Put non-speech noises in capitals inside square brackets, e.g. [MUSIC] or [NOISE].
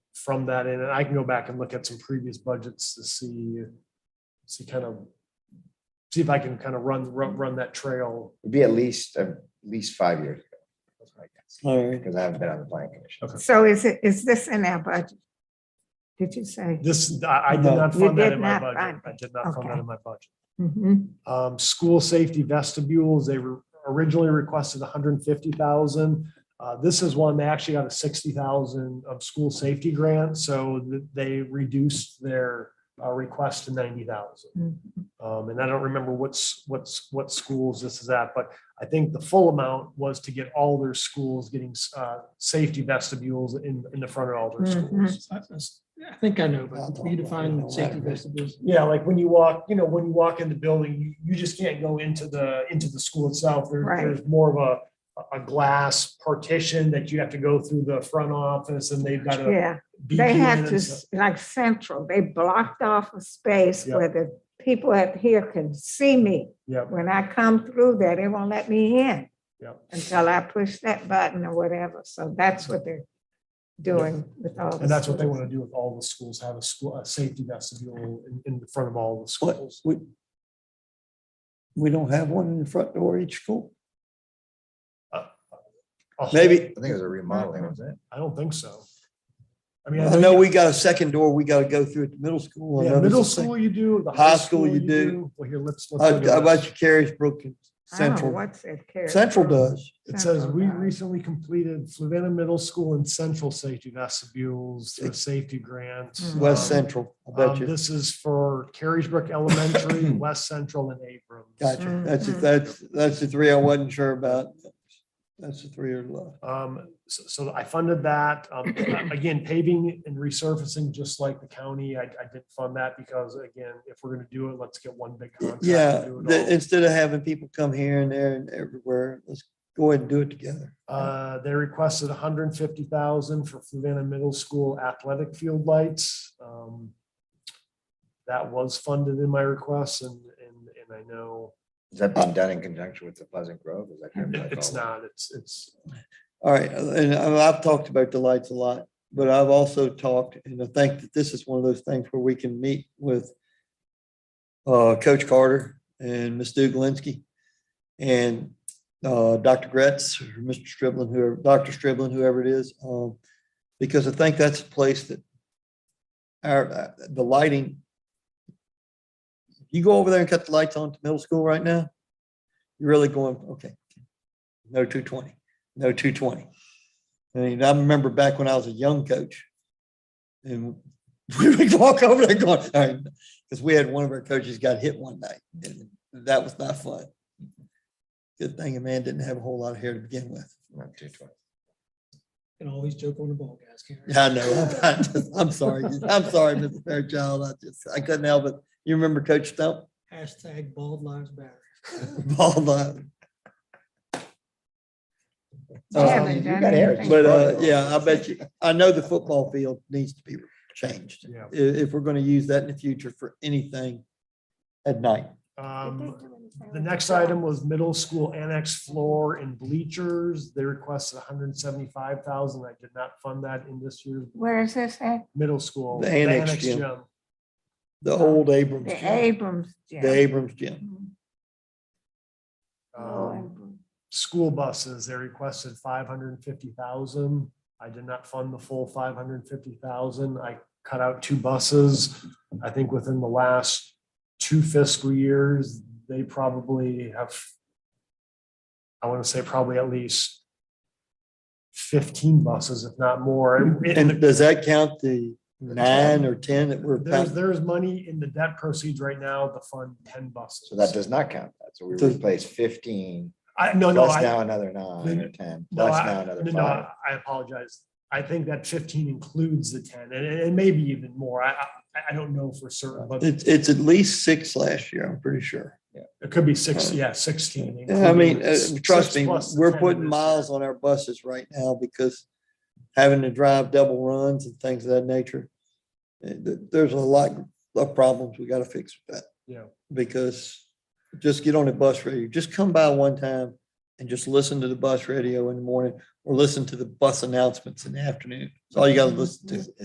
from that in, and I can go back and look at some previous budgets to see, see kind of, see if I can kind of run, run, run that trail. It'd be at least, at least five years. That's my guess, All right. Because I haven't been on the planning commission. So is it, is this in our budget? Did you say? This, I, I did No. not You fund that did in my not budget. fund I did not fund that Okay. in my budget. Mhm. Um, school safety vestibules, they were originally requested hundred and fifty thousand. Uh, this is one, they actually got a sixty thousand of school safety grant, so th- they reduced their uh, request to ninety thousand. Mhm. Um, and I don't remember what's, what's, what schools this is at, but I think the full amount was to get all their schools getting, uh, safety vestibules in, in the front of all their Mhm. schools. I I think I know, but you define safety vestibules. Yeah, like when you walk, you know, when you walk in the building, you, you just can't go into the, into the school itself. There- Right. There's more of a, a glass partition that you have to go through the front office and they've got a. Yeah, beacon they had and to, stuff. s- like Central, they blocked off a space Yeah. where the people up here can see me. Yeah. When I come through there, they won't let me in. Yeah. Until I push that button or whatever. So that's what they're doing with all. the And that's what they schools. want to do with all the schools, have a school, a safety vestibule in, in the front of all the What, schools. we, we don't have one in the front door of each school? A whole- Maybe, I think it was a remodeling, wasn't it? I don't think so. I mean, I know we got a second door we gotta go through at the middle school. I Yeah, know there's middle a sec- school you do, the high school you do. Well, here, let's. let's How look Uh, how at about this. your Carisbrook and I don't know Central? What's it? Carrie? Central does. It says, Central we does. recently completed Flavanna Middle School and Central Safety Vestibules, through a safety grant. Mm. West Um, Central, I bet um, you. This is for Carriesbrook [CLEARS THROAT] Elementary, West Central and Abrams. Gotcha. That's, Mhm. that's, that's the three I wasn't sure about. That's the three are left. Um, so, so I funded that. Um, [CLEARS THROAT] again, paving and resurfacing, just like the county, I, I did fund that because again, if we're gonna do it, let's get one big contract. and Yeah, do it the- all. instead of having people come here and there and everywhere, let's go ahead and do it together. Uh, they requested hundred and fifty thousand for Fluvanna Middle School athletic field lights. Um, That was funded in my request and, and, and I know Is that Uh, being done in conjunction with the Pleasant Grove? Is that kind of it- like it's all- not, it's, it's, All right, and I- I've talked about the lights a lot, but I've also talked, and I think that this is one of those things where we can meet with uh, Coach Carter and Ms. Duglinsky and uh, Dr. Gretz, or Mr. Striblin, whoever, Dr. Striblin, whoever it is, um, because I think that's a place that our, uh, the lighting, you go over there and cut the lights on to middle school right now, you're really going, okay, no 220 no two twenty. I mean, I remember back when I was a young coach. And [LAUGHS] we would walk over there going, all right, because we had one of our coaches got hit one night and that was not fun. Good thing a man didn't have a whole lot of hair to begin with. Not too twenty. Can always joke on the ball, guys. can't we? I know, I just- I'm [LAUGHS] sorry, I'm sorry, Mr. Fairchild, I just, I couldn't help it. You remember Coach Stump? [LAUGHS] Hashtag bald lives matter. Ball uh, line. Um, I Uh, haven't you done got hair. anything. But uh, yeah, I bet you, I know the football field needs to be changed yeah. i- if we're gonna use that in the future for anything at night. Um, The next item was middle school annex floor and bleachers. They requested hundred and seventy-five thousand. I did not fund that in this year's Where is this at? middle school. The annex gym. Um, The old Abrams, The gym, Abrams. Gym. the Abrams gym. Mhm. Oh, Um, Abrams. School buses, they requested five hundred and fifty thousand. I did not fund the full five hundred and fifty thousand. I cut out two buses. I think within the last two fiscal years, they probably have, I want to say probably at least fifteen buses, if not more. And- And does that count the nine or ten that were? There's, there's money in the debt proceeds right now to fund ten buses. So that does not count. that. So we Does- replaced fifteen, I, Oh, no, no, plus I, now another nine or ten, No, plus I, now no, another no, five. I- I apologize. I think that fifteen includes the ten and, and maybe even more. I, I, I don't know for certain, but It's, it's at least six last year, I'm pretty sure. it could be six, yeah, sixteen. I mean, including uh, six trust me, plus the we're 10 putting this miles on our buses right now because having to drive double runs and things of that nature. eh, th- There's a lot of problems we gotta fix with that. Yeah. Because just get on a bus radio, just come by one time and just listen to the bus radio in the morning or listen to the bus announcements in the afternoon. It's all you gotta listen to.